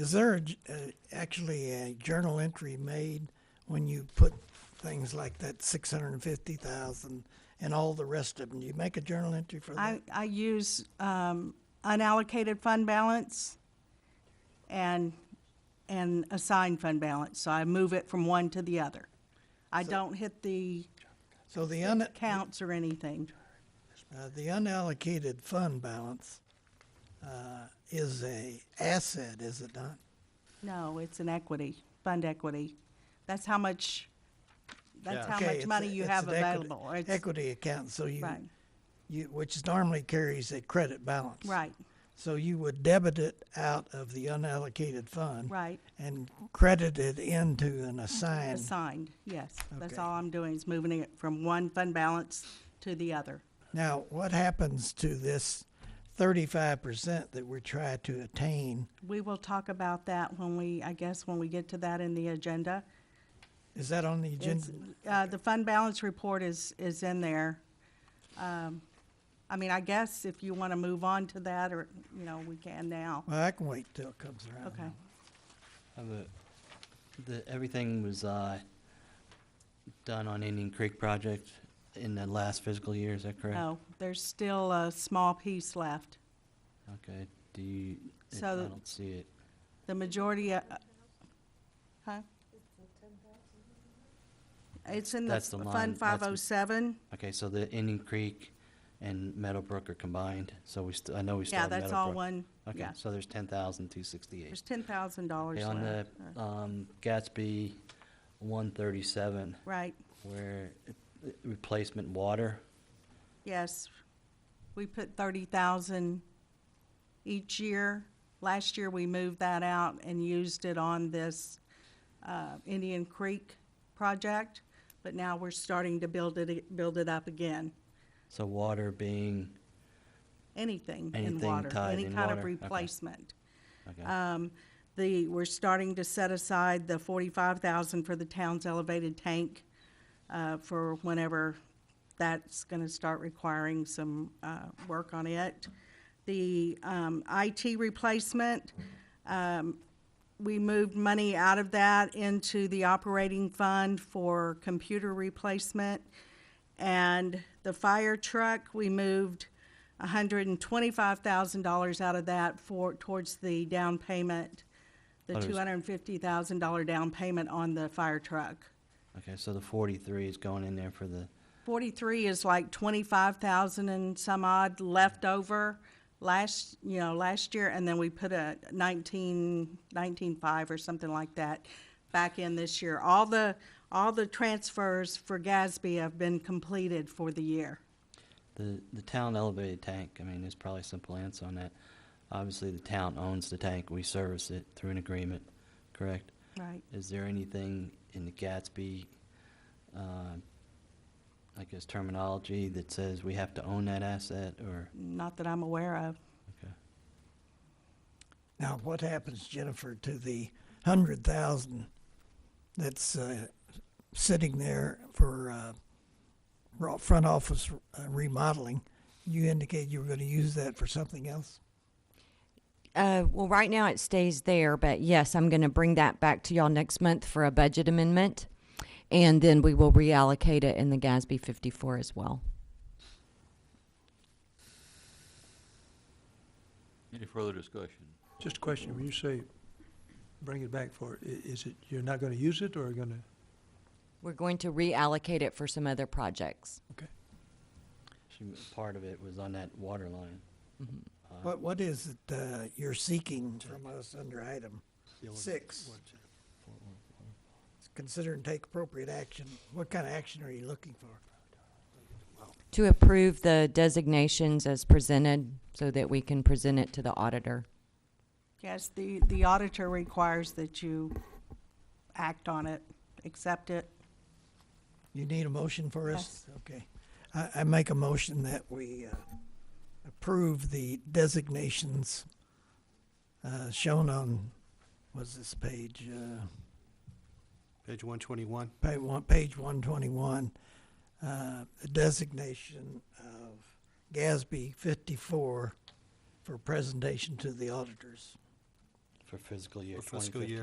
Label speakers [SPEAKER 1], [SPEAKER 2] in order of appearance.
[SPEAKER 1] Is there a j- uh, actually a journal entry made when you put things like that six hundred and fifty thousand and all the rest of them? Do you make a journal entry for that?
[SPEAKER 2] I, I use um, unallocated fund balance and, and assigned fund balance, so I move it from one to the other. I don't hit the
[SPEAKER 1] So the un,
[SPEAKER 2] counts or anything.
[SPEAKER 1] uh, the unallocated fund balance, uh, is a asset, is it not?
[SPEAKER 2] No, it's an equity, fund equity. That's how much, that's
[SPEAKER 3] Yeah.
[SPEAKER 2] how
[SPEAKER 1] Okay,
[SPEAKER 2] much
[SPEAKER 1] it's
[SPEAKER 2] money
[SPEAKER 1] a-
[SPEAKER 2] you
[SPEAKER 1] it's
[SPEAKER 2] have
[SPEAKER 1] an equity-
[SPEAKER 2] available. It's-
[SPEAKER 1] Equity account, so you,
[SPEAKER 2] Right.
[SPEAKER 1] you, which normally carries a credit balance.
[SPEAKER 2] Right,
[SPEAKER 1] So you would debit it out of the unallocated fund.
[SPEAKER 2] right.
[SPEAKER 1] And credit it into an assigned.
[SPEAKER 2] Assigned, yes. That's
[SPEAKER 1] Okay.
[SPEAKER 2] all I'm doing, is moving it from one fund balance to the other.
[SPEAKER 1] Now, what happens to this thirty-five percent that we're trying to attain?
[SPEAKER 2] We will talk about that when we, I guess, when we get to that in the agenda.
[SPEAKER 1] Is that on the agenda?
[SPEAKER 2] It's- uh, The fund balance report is, is in there. Um, I mean, I guess if you want to move on to that, or, you know, we can now.
[SPEAKER 1] Well, I can wait till it comes around.
[SPEAKER 2] Okay,
[SPEAKER 3] Have a- The, everything was, uh, done on Indian Creek project in the last fiscal year, is that correct?
[SPEAKER 2] no, Oh, there's still a small piece left.
[SPEAKER 3] Okay, do you, I
[SPEAKER 2] So the-
[SPEAKER 3] don't see it.
[SPEAKER 2] The majority, uh, huh? It's in the
[SPEAKER 3] That's the line,
[SPEAKER 2] Fund
[SPEAKER 3] that's-
[SPEAKER 2] 507.
[SPEAKER 3] Okay, so the Indian Creek and Meadowbrook are combined, so we still, I know we still
[SPEAKER 2] Yeah,
[SPEAKER 3] have
[SPEAKER 2] that's
[SPEAKER 3] Meadowbrook.
[SPEAKER 2] all one,
[SPEAKER 3] Okay,
[SPEAKER 2] yeah.
[SPEAKER 3] so there's ten thousand two sixty-eight.
[SPEAKER 2] There's $10,000
[SPEAKER 3] Okay, on the,
[SPEAKER 2] left.
[SPEAKER 3] um, Gatsby one thirty-seven,
[SPEAKER 2] Right.
[SPEAKER 3] where it- it- replacement water,
[SPEAKER 2] Yes, we put thirty thousand each year. Last year, we moved that out and used it on this, uh, Indian Creek project, but now we're starting to build it, build it up again.
[SPEAKER 3] so water being,
[SPEAKER 2] Anything in
[SPEAKER 3] Anything
[SPEAKER 2] water,
[SPEAKER 3] tied
[SPEAKER 2] any
[SPEAKER 3] in
[SPEAKER 2] kind of
[SPEAKER 3] water, okay.
[SPEAKER 2] replacement.
[SPEAKER 3] okay.
[SPEAKER 2] Um, the, we're starting to set aside the forty-five thousand for the town's elevated tank, uh, for whenever that's gonna start requiring some, uh, work on it. The, um, IT replacement, um, we moved money out of that into the operating fund for computer replacement. And the fire truck, we moved hundred and twenty-five thousand dollars out of that for, towards the down payment, the
[SPEAKER 3] Thought it was-
[SPEAKER 2] two hundred and fifty thousand dollar down payment on the fire truck.
[SPEAKER 3] Okay, so the forty-three is going in there for the,
[SPEAKER 2] Forty-three is like twenty-five thousand and some odd left over last, you know, last year, and then we put a nineteen, nineteen-five or something like that back in this year. All the, all the transfers for Gatsby have been completed for the year.
[SPEAKER 3] the, the town elevated tank, I mean, there's probably a simple answer on that. Obviously, the town owns the tank, we service it through an agreement, correct?
[SPEAKER 2] Right.
[SPEAKER 3] Is there anything in the Gatsby, uh, I guess terminology that says we have to own that asset, or,
[SPEAKER 2] Not that I'm aware of.
[SPEAKER 3] okay,
[SPEAKER 1] Now, what happens, Jennifer, to the hundred thousand that's, uh, sitting there for, uh, ro- front office uh, remodeling? You indicate you were gonna use that for something else?
[SPEAKER 4] Uh, well, right now it stays there, but yes, I'm going to bring that back to y'all next month for a budget amendment. And then we will reallocate it in the GASB 54 as well.
[SPEAKER 5] Any further discussion?
[SPEAKER 6] Just a question, when you say bring it back for, it, i- is it, you're not gonna use it or gonna,
[SPEAKER 4] We're going to reallocate it for some other projects.
[SPEAKER 6] okay?
[SPEAKER 3] She- part of it was on that water line.
[SPEAKER 1] What, what is it, uh, you're seeking from us under item six? Consider and take appropriate action. What kind of action are you looking for?
[SPEAKER 4] To approve the designations as presented so that we can present it to the auditor.
[SPEAKER 2] Yes, the, the auditor requires that you act on it, accept it.
[SPEAKER 1] You need a motion for us? Okay. I, I make a motion that we, uh, approve the designations, uh, shown on, was this page, uh,
[SPEAKER 7] Page 121.
[SPEAKER 1] page one, page one twenty-one, uh, the designation of GASB fifty-four for presentation to the auditors.
[SPEAKER 8] for fiscal year
[SPEAKER 3] For fiscal
[SPEAKER 8] 2015.
[SPEAKER 3] year